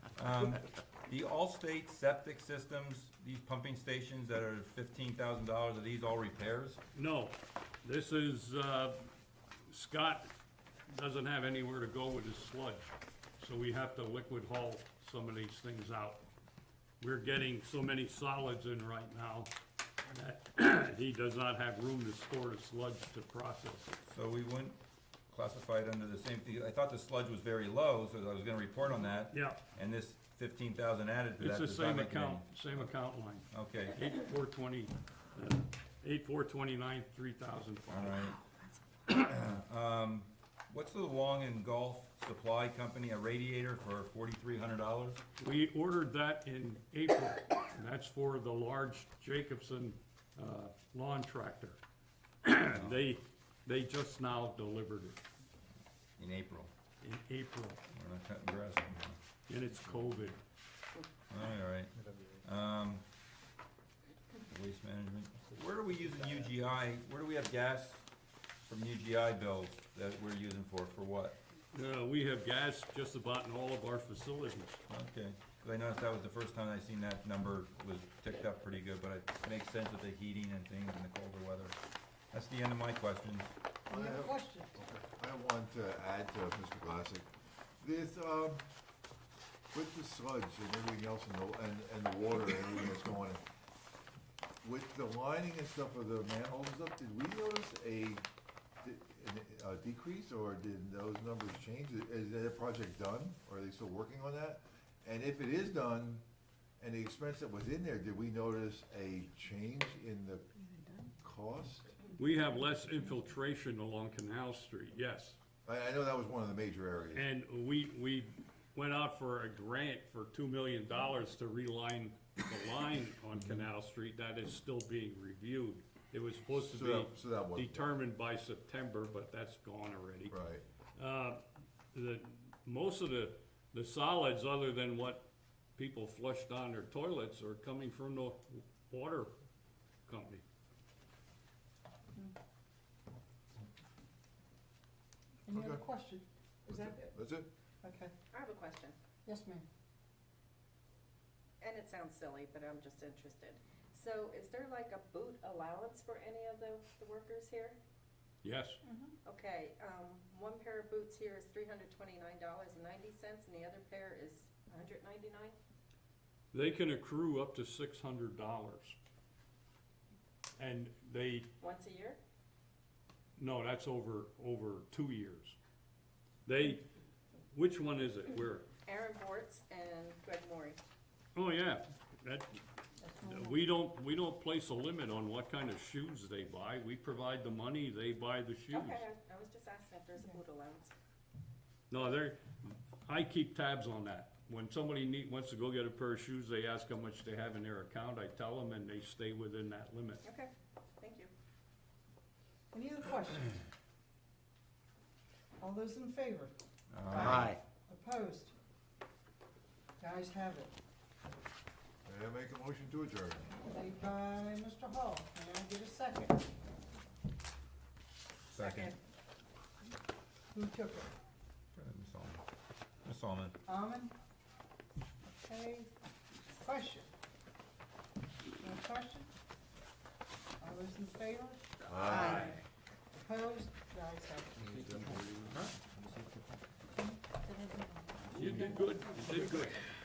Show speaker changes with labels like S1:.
S1: Um, the Allstate septic systems, these pumping stations that are fifteen thousand dollars, are these all repairs?
S2: No, this is, uh, Scott doesn't have anywhere to go with his sludge, so we have to liquid haul some of these things out. We're getting so many solids in right now that he does not have room to store the sludge to process it.
S1: So we wouldn't classify it under the same thing, I thought the sludge was very low, so I was gonna report on that.
S2: Yeah,
S1: And this fifteen thousand added to
S2: it's
S1: that
S2: the
S1: does not
S2: same
S1: make it any-
S2: account, same account line,
S1: Okay,
S2: eight four twenty, uh, eight four twenty-nine, three thousand
S1: all
S2: five.
S1: right. Um, what's the Long and Golf Supply Company, a radiator for forty-three hundred dollars?
S2: We ordered that in April, and that's for the large Jacobson uh, lawn tractor. They, they just now delivered it
S1: In April,
S2: in April,
S1: we're not cutting grass anymore.
S2: and it's COVID.
S1: All right. Um, waste management, where are we using UGI, where do we have gas from UGI bills that we're using for, for what?
S2: Uh, We have gas just about in all of our facilities.
S1: Okay, 'Cause I noticed that was the first time I seen that number was ticked up pretty good, but it makes sense with the heating and things and the colder weather. That's the end of my questions.
S3: Any other questions?
S4: I want to add to Mr. Glassick, this, um, with the sludge and everything else and the, and, and the water and everything that's going in, with the lining and stuff of the manholes and stuff, did we notice a, de- a decrease or did those numbers change? Is that project done? Or are they still working on that? And if it is done, and the expense that was in there, did we notice a change in the cost?
S2: We have less infiltration along Canal Street, yes.
S4: I, I know that was one of the major areas.
S2: And we, we went out for a grant for two million dollars to reline the line on Canal Street, that is still being reviewed. It was supposed
S4: So that- so
S2: to
S4: that
S2: be
S4: wasn't-
S2: determined by September, but that's gone already.
S4: Right.
S2: Uh, the, most of the, the solids, other than what people flush down their toilets, are coming from the water company.
S3: Any other
S4: Okay.
S3: question? Is that it?
S4: That's it?
S3: Okay.
S5: I have a question,
S3: Yes, ma'am.
S5: and it sounds silly, but I'm just interested. So is there like a boot allowance for any of the, the workers here?
S2: Yes,
S5: Okay, um, one pair of boots here is three hundred twenty-nine dollars and ninety cents, and the other pair is a hundred ninety-nine?
S2: they can accrue up to six hundred dollars. And they
S5: Once a year?
S2: No, that's over, over two years. They, which one is it? Where?
S5: Aaron Bortz and Greg Maury.
S2: Oh, yeah, that, we don't, we don't place a limit on what kind of shoes they buy. We provide the money, they buy the shoes.
S5: Okay, I- I was just asking if there's a boot allowance.
S2: No, they're, I keep tabs on that. When somebody need, wants to go get a pair of shoes, they ask how much they have in their account. I tell them and they stay within that limit.
S5: Okay, thank you.
S3: Any other questions? All those in favor?
S1: Um, Aye.
S3: Opposed? Guys have it.
S4: May I make a motion to adjourn?
S3: Made by Mr. Hall. May I get a second?
S1: Second.
S3: Who took it?
S1: Go ahead, Ms. Solomon. Ms. Solomon,
S3: Almond? Okay. Question? No question? All those in favor?
S4: Aye.
S3: Opposed? Guys have it.
S2: You did good, you did good.